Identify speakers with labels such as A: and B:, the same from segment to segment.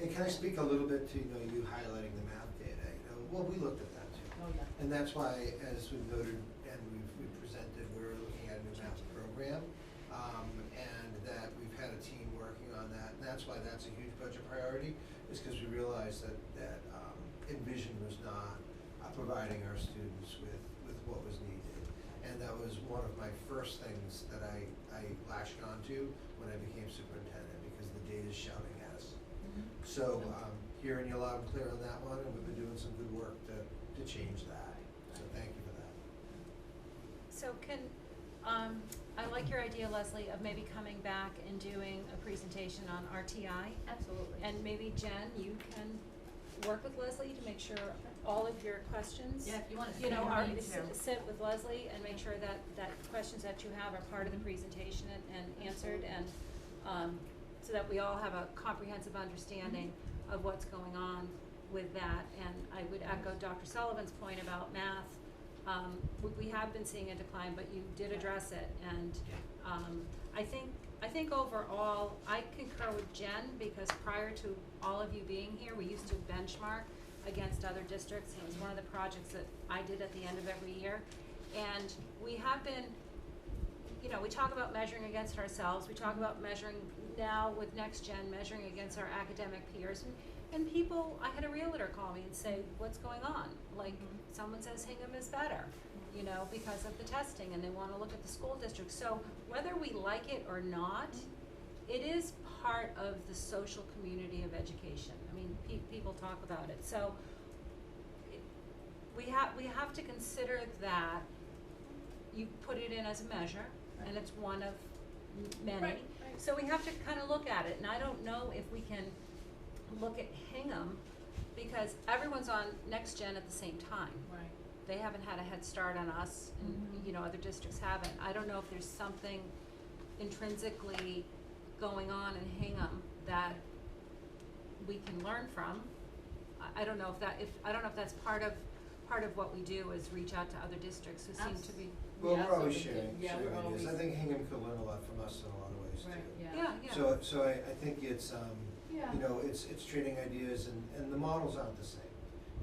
A: And can I speak a little bit to, you know, you highlighting the math data, you know, well, we looked at that too.
B: Oh, yeah.
A: And that's why, as we voted and we've, we presented, we're looking at a new math program. Um, and that we've had a team working on that, and that's why that's a huge budget priority, is because we realized that, that, um, Envision was not uh, providing our students with, with what was needed. And that was one of my first things that I, I latched onto when I became superintendent, because the data's shouting at us.
B: Mm-hmm.
A: So, um, hearing you loud and clear on that one, and we've been doing some good work to, to change that, so thank you for that.
C: So can, um, I like your idea, Leslie, of maybe coming back and doing a presentation on RTI.
B: Absolutely.
C: And maybe Jen, you can work with Leslie to make sure all of your questions,
B: Yeah, if you want to.
C: you know, are,
B: Me
C: s-
B: too.
C: sit with Leslie and make sure that, that questions that you have are part of the presentation and, and answered and, um, so that we all have a comprehensive understanding
B: Mm-hmm.
C: of what's going on with that. And I would echo Dr. Sullivan's point about math. Um, we, we have been seeing a decline, but you did address it and, um, I think, I think overall, I concur with Jen because prior to all of you being here, we used to benchmark against other districts. and It was one of the projects that I did at the end of every year. And we have been, you know, we talk about measuring against ourselves. We talk about measuring now with next gen, measuring against our academic peers. And, and people, I had a realtor call me and say, what's going on? Like,
B: Mhm.
C: someone says Hingham is better you know, because of the testing and they wanna look at the school district. So whether we like it or not, it is part of the social community of education. I mean, pe- people talk about it, so it- we have, we have to consider that you put it in as a measure and it's one of m- many.
B: Right, right.
C: So we have to kinda look at it and I don't know if we can look at Hingham because everyone's on next gen at the same time
B: Right.
C: they haven't had a head start on us and,
B: Mhm.
C: you know, other districts haven't. I don't know if there's something intrinsically going on in Hingham that we can learn from. I, I don't know if that, if, I don't know if that's part of, part of what we do is reach out to other districts who seem to be,
A: Well,
B: Yeah,
A: we're always
B: so we
A: sharing,
B: did. Yeah,
A: sharing
B: we're
A: ideas, I
B: always-
A: think Hingham could learn a lot from us in a lot of ways too.
B: Right, yeah.
C: yeah, yeah.
A: So, so I, I think it's, um,
B: Yeah.
A: you know, it's, it's trading ideas and, and the models aren't the same.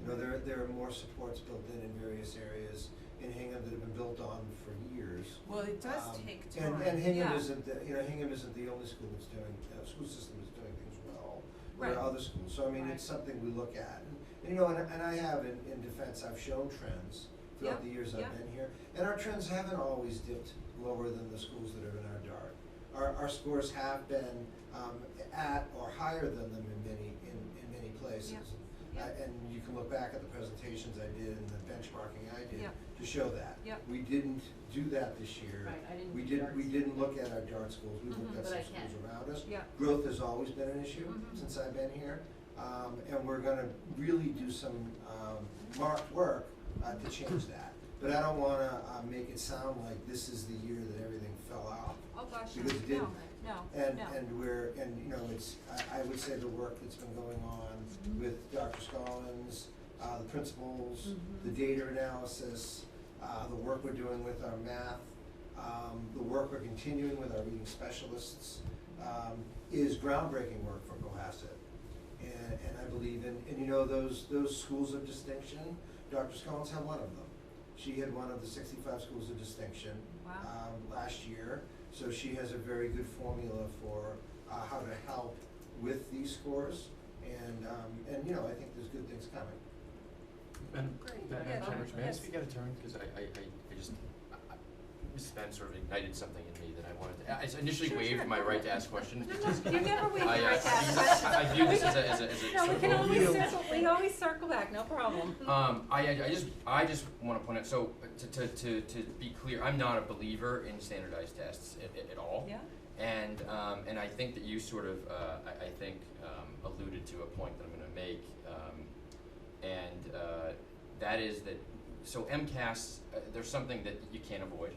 A: You know, there, there are more supports built in in various areas in Hingham that have been built on for years.
D: Well, it does
A: Um,
D: take time.
A: And, and Hingham
C: Yeah.
A: isn't, the- you know, Hingham isn't the only school that's doing, uh, school system that's doing things well. There
C: Right.
A: are other schools, so I mean, it's something we look at. And, and, you know, and, and I have, in, in defense, I've shown trends throughout
C: Yeah,
A: the years I've
C: yeah.
A: been here. And our trends haven't always dipped lower than the schools that are in our dart. Our, our scores have been, um, at or higher than them in many, in, in many places.
C: Yeah.
A: Uh, And you can look back at the presentations I did and the benchmarking I did
C: Yeah.
A: to show that.
C: Yeah.
A: We didn't do that this year.
B: Right, I didn't
A: We
B: do
A: didn't, we
B: darts.
A: didn't look at our dart schools, we
C: Mhm.
A: looked at
B: But I
A: some
B: can.
A: schools around us.
C: Yeah.
A: Growth has always been an issue
C: Mhm.
A: since I've been here, um, and we're gonna really do some, um, marked work, uh, to change that. But I don't wanna, uh, make it sound like this is the year that everything fell out.
C: Oh, gosh, no,
A: Because it didn't.
C: no, no,
A: And,
C: no.
A: and we're, and, you know, it's, I, I would say the work that's been going on with Dr. Scollins, uh, the principals, the data analysis, uh, the work we're doing with our math, um, the work we're continuing with our reading specialists, um, is groundbreaking work for Cohasset. And, and I believe in, and you know, those, those schools of distinction, Dr. Scollins had one of them. She had one of the sixty-five schools of distinction
C: Wow,
A: um, last year. So she has a very good formula for uh, how to help with these scores. And, um, and, you know, I think there's good things coming.
E: Madam,
C: Great.
E: Madam
C: Yeah,
E: Chair,
C: fine.
E: may I
C: Yes.
E: speak out of turn? Because I, I, I- I just, I- I- Ms. Spence sort of ignited something in me that I wanted to, I- I initially
C: Sure, sure,
E: waived my
C: go
E: right
C: ahead.
E: to ask questions
C: No, no,
E: because
C: you never waive
E: I,
C: your right to
E: uh,
C: ask
E: view this- I view this as a, as a, as a
C: no,
E: sort
C: we
E: of
C: can always
E: overview.
C: circle, we always circle back, no problem.
E: Um, I, I I just, I just wanna point out, so, uh, to, to, to, to be clear, I'm not a believer in standardized tests at, at, at all.
C: Yeah,
E: And, um, and I think that you sort of, uh, I, I think, um, alluded to a point that I'm gonna make, um, and, uh, that is that, so MCAS, uh, there's something that you can't avoid.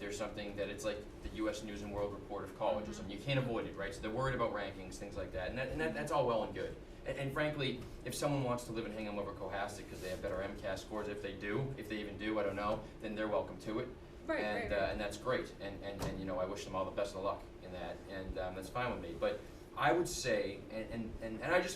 E: There's something that it's like the US News and World Report of college or something, you can't avoid it, right? So they're worried about rankings, things like that, and that, and that, that's all well and good. And, and frankly, if someone wants to live in Hingham over Cohasset because they have better MCAS scores, if they do, if they even do, I don't know, then they're welcome to it
C: right, right,
E: and
C: right.
E: Uh, and that's great. And, and and you know, I wish them all the best of luck in that, and um, that's fine with me. But I would say, and and and, and I just